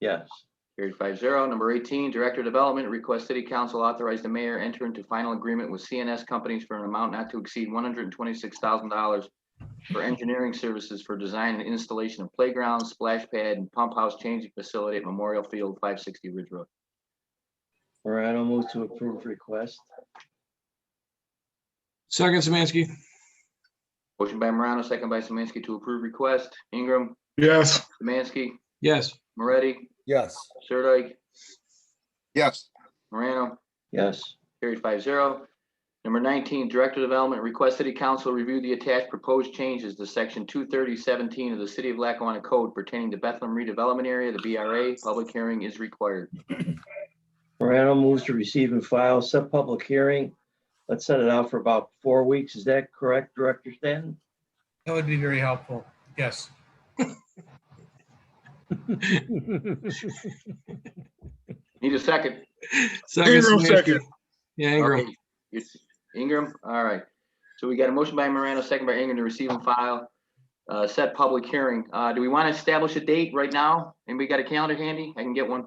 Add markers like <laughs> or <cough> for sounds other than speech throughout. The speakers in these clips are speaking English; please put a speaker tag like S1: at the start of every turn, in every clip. S1: Yes.
S2: Carried five zero. Number eighteen, Director of Development, request City Council authorize the mayor enter into final agreement with CNS companies for an amount not to exceed one hundred and twenty-six thousand dollars for engineering services for design and installation of playgrounds, splash pad, and pump house changing facility at Memorial Field, five sixty Ridge Road.
S1: Morano moves to approve request.
S3: Second, Samansky.
S2: Motion by Morano, second by Samansky to approve request. Ingram,
S4: yes,
S2: Samansky,
S3: Yes.
S2: Moretti,
S5: yes,
S2: Sirdike,
S6: yes,
S2: Morano.
S1: Yes.
S2: Carried five zero. Number nineteen, Director of Development, request City Council review the attached proposed changes to section two thirty seventeen of the City of Lackawanna Code pertaining to Bethlehem redevelopment area, the BRA. Public hearing is required.
S1: Morano moves to receive and file, set public hearing. Let's set it out for about four weeks. Is that correct, Director Stanton?
S7: That would be very helpful. Yes.
S2: Need a second?
S3: Second,
S4: Ingram
S3: Samansky.
S4: second.
S3: Yeah, Ingram.
S2: Okay. It's Ingram, all right. So we got a motion by Morano, second by Ingram to receive and file, uh, set public hearing. Uh, do we want to establish a date right now? Anybody got a calendar handy? I can get one.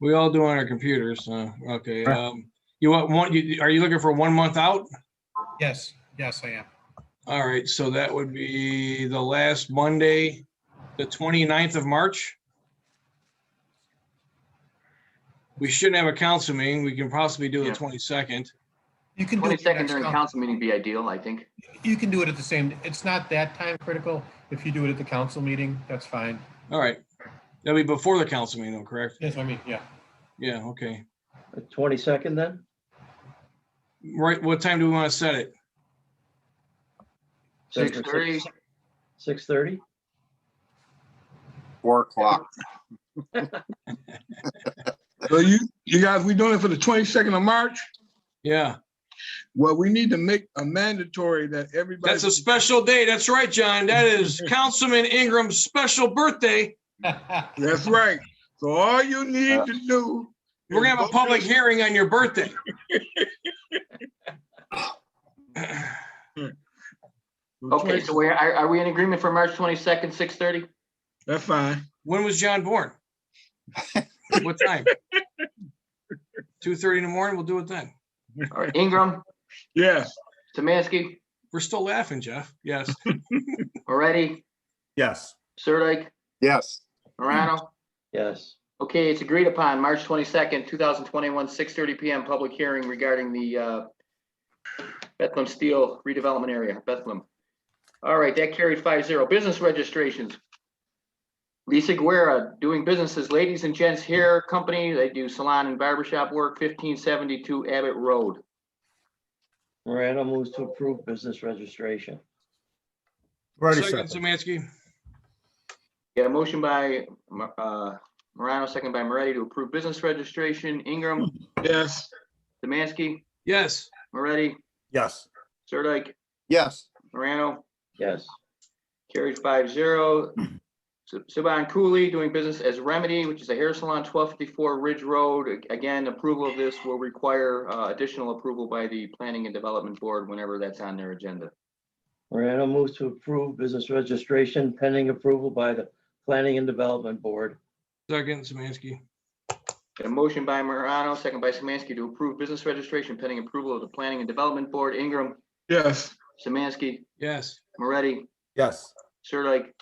S3: We all do on our computers. So, okay. Um, you want one, you, are you looking for one month out?
S7: Yes. Yes, I am.
S3: All right. So that would be the last Monday, the 29th of March. We shouldn't have a council meeting. We can possibly do the
S2: Yeah.
S3: 22nd.
S7: You can do it.
S2: Twenty-second
S7: next
S2: during
S7: coun-
S2: council meeting be ideal, I think.
S7: You can do it at the same, it's not that time critical. If you do it at the council meeting, that's fine.
S3: All right. That'll be before the council meeting, though, correct?
S7: Yes, I mean, yeah.
S3: Yeah, okay.
S1: The 22nd then?
S3: Right, what time do we want to set it?
S2: Six thirty.
S1: 6:30?
S6: four o'clock.
S4: So you, you guys, we doing it for the twenty-second of March?
S3: Yeah,
S4: Well, we need to make a mandatory that everybody.
S3: that's a special day. That's right, John. That is Councilman Ingram's special birthday.
S7: <laughs>
S4: That's right. So all you need to do.
S3: We're gonna have a
S4: is vote
S3: public
S4: yes.
S3: hearing on your birthday.
S2: Okay, so we're, are, are we in agreement for March twenty-second, six thirty?
S4: That's fine.
S3: When was John born? What time? Two thirty in the morning. We'll do it then.
S2: All right, Ingram,
S4: Yes,
S2: Samansky,
S3: We're still laughing, Jeff. Yes.
S2: Moretti,
S5: yes.
S2: Sirdike,
S6: yes.
S2: Morano.
S1: Yes.
S2: Okay, it's agreed upon, March twenty-second, two thousand twenty-one, six thirty PM, public hearing regarding the uh, Bethlehem Steel redevelopment area, Bethlehem. All right, that carried five zero. Business registrations. Lisa Guerra, doing businesses, ladies and gents hair company, they do salon and barbershop work, fifteen seventy-two Abbott Road.
S1: Morano moves to approve business registration.
S5: Already
S3: Second,
S5: second,
S3: Samansky.
S2: Got a motion by Mo- uh, Morano, second by Moretti to approve business registration. Ingram,
S4: yes.
S2: Samansky,
S3: Yes.
S2: Moretti,
S5: yes.
S2: Sirdike,
S6: Yes,
S2: Morano,
S1: Yes.
S2: carried five zero. Saban Cooley doing business as Remedy, which is a hair salon, twelve fifty-four Ridge Road. Again, approval of this will require uh, additional approval by the Planning and Development Board whenever that's on their agenda.
S1: Morano moves to approve business registration pending approval by the Planning and Development Board.
S3: Second, Samansky.
S2: Got a motion by Morano, second by Samansky to approve business registration pending approval of the Planning and Development Board. Ingram,
S4: Yes,
S2: Samansky,
S3: Yes.
S2: Moretti,
S5: Yes,
S2: Sirdike,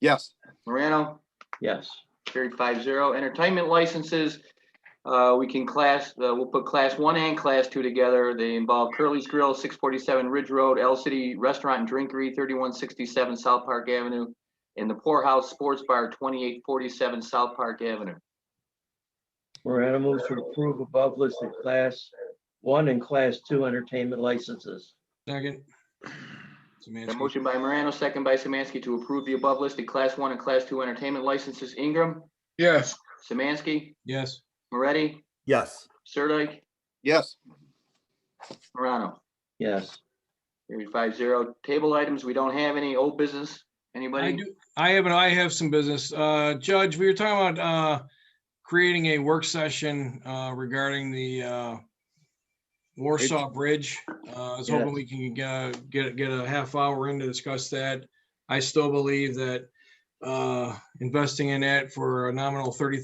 S6: yes,
S2: Morano,
S1: Yes.
S2: carried five zero. Entertainment licenses, uh, we can class, uh, we'll put class one and class two together. They involve Curly's Grill, six forty-seven Ridge Road, L City Restaurant and Drinkery, thirty-one sixty-seven South Park Avenue, and the Poorhouse Sports Bar, twenty-eight forty-seven South Park Avenue.
S1: Morano moves to approve above listed class one and class two entertainment licenses.
S3: Second.
S2: A
S3: Samansky.
S2: motion by Morano, second by Samansky to approve the above listed class one and class two entertainment licenses. Ingram,
S4: yes,
S2: Samansky,
S3: Yes.
S2: Moretti,
S5: yes.
S2: Sirdike,
S6: yes,
S2: Morano.
S1: Yes.
S2: Carried five zero. Table items, we don't have any. Old business,
S3: I
S2: anybody?
S3: do, I have, an- I have some business. Uh, Judge, we were talking about, uh, creating a work session, uh, regarding the, uh, Warsaw Bridge. Uh, I was hoping
S1: Yes.
S3: we can, uh, get, get a half hour in to discuss that. I still believe that, uh, investing in that for a nominal thirty